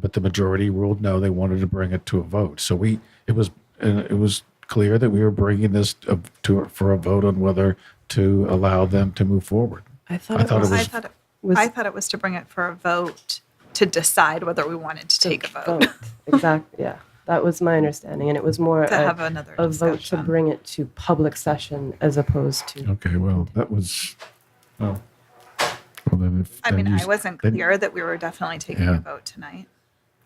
but the majority ruled no. They wanted to bring it to a vote. So we it was uh, it was clear that we were bringing this uh, to for a vote on whether to allow them to move forward. I thought I it thought was. it was- I thought it was- I thought it was to bring it for a vote to decide whether we wanted to take a vote. Exactly, yeah. That was my understanding, and it was more To a, have another a vote to discussion. bring it to public session as opposed to. Okay, well that was well. well, then if- I then mean, you- I wasn't then- clear that we were definitely taking Yeah. a vote tonight.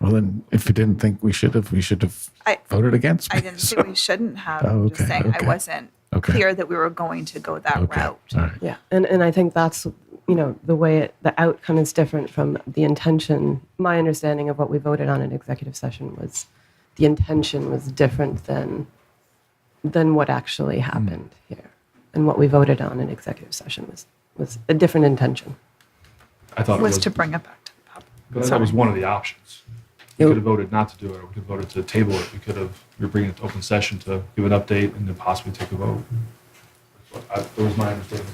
Well, then if you didn't think we should have, we should have I- voted against. I me. didn't So- say we shouldn't have. Oh, I'm just okay, saying I okay, wasn't okay. clear that we were going to go that okay, route. All right. Yeah, and, and I think that's, you know, the way it, the outcome is different from the intention. My understanding of what we voted on in executive session was the intention was different than, than what actually Hmm. happened here. And what we voted on in executive session was, was a different intention. I thought it Was was, to bring it back to the public. but I thought it was one of the options. We It- could have voted not to do it, or we could have voted to table it. We could have, we were bringing it to open session to give an update and then possibly take a vote. That's what I- That was my understanding.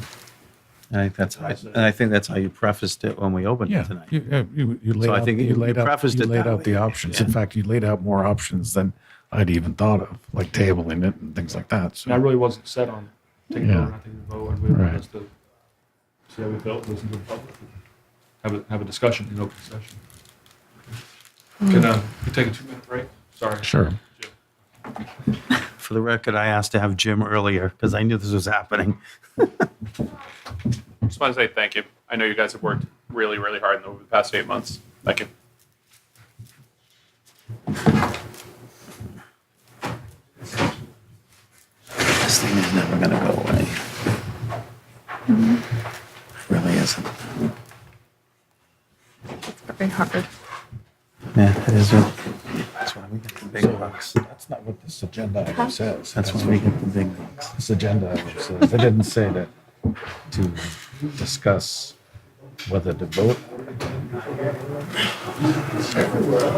And I think that's, how- and I think that's how you prefaced it when we opened Yeah, it tonight. you, uh, you, you laid So I out, think you you- laid you out, prefaced you it laid that out the way. options. In Yeah. fact, you laid out more options than I'd even thought of, like tabling it and things like that. And So, I really wasn't set on taking a vote Yeah. or not taking a vote. I really Right. wanted us to see how we felt, listen to the public, and have a, have a discussion in open session. Hmm. Can, uh, we take a two-minute break? Sorry. sure. Jim. For the record, I asked to have Jim earlier because I knew this was happening. Just want to say thank you. I know you guys have worked really, really hard in the- over the past eight months. Thank you. This thing is never going to go away. It really isn't. It's very hard. Yeah, it is. what- That's why we get the big bucks. That's not what this agenda item says. That's why we get the big bucks. This agenda item says, they didn't say that to discuss whether to vote.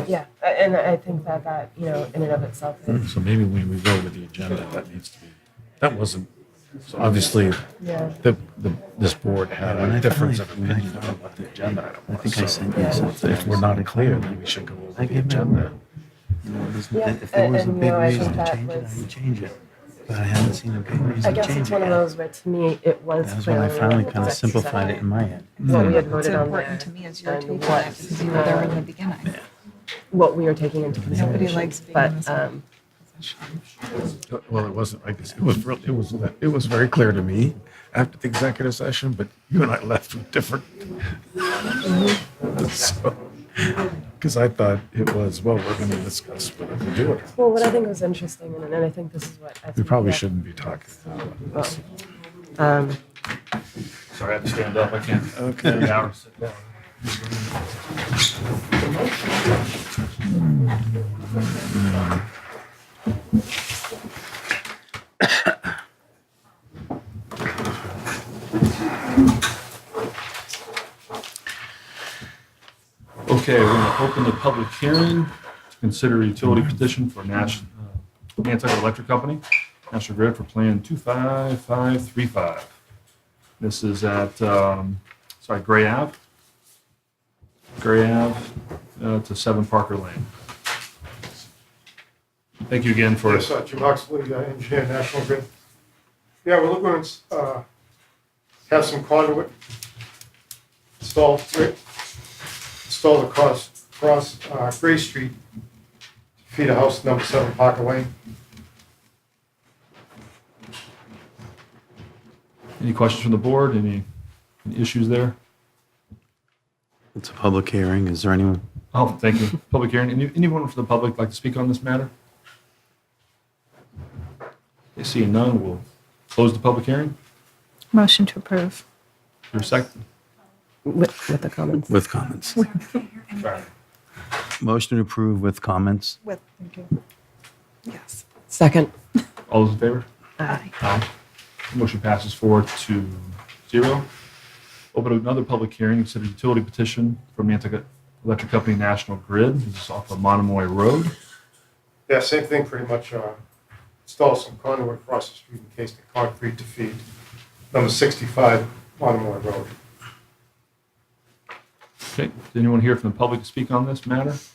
Yeah, and I think that that, you know, in and of itself So maybe when we go with the agenda, that needs to be, that wasn't, obviously, yeah. the, the, this board had When I a difference of finally- when I opinion on what the agenda item was. I think I So sent you uh, something. If we're not clear, then we should go over I the gave my agenda. word. You know, there's- If Yeah, there was a and, you big know, I think reason to that change it, I was- would change it. But I haven't seen a big I reason to guess change it's it one of yet. those where to me it was. That's when I clearly finally kind of executive simplified it in session, my head. What we had What's voted on there important to me is you're and taking what, that because you were there in the beginning. what we are taking into consideration. likes being in But this um, Well, it wasn't like this. It was real, it was, it was very clear to me after the executive session, but you and I left with different. Because I thought it was, well, we're going to discuss whether to do it. well, what I think was interesting, and, and I think this is what I think We probably that- shouldn't be talking. about this. Um, Sorry, I have to stand up. I can't. Okay. Three hours. Sit down. Okay, we're going to open the public hearing to consider a utility petition for Nash, uh, Nantucket Electric Company, National Grid for Plan 25535. This is at, um, sorry, Gray Ave. Gray Ave uh, to 7 Parker Lane. Thank you again for, Yes, uh, Jim Oxley, uh, engineer, National Grid. Yeah, we're looking to uh, have some conduit installed, right, installed across, across uh, Gray Street to feed a house number seven Parker Lane. any questions from the board? Any any issues there? It's a public hearing. Is there anyone? Oh, thank you. Public hearing. Any- Anyone from the public like to speak on this matter? Okay, Seeing none, we'll close the public hearing. Motion to approve. Your second. with, with the comments. With comments. Sorry. Motion to approve with comments. With, yes. Second, All those in favor? Aye. Aye. Motion passes four to zero. Open another public hearing, consider utility petition from Nantucket Electric Company National Grid. This is off of Monomoy Road. Yeah, same thing, pretty much, uh, install some conduit across the street in case the concrete to feed number sixty-five Monomoy Road. Okay, is anyone here from the public to speak on this matter?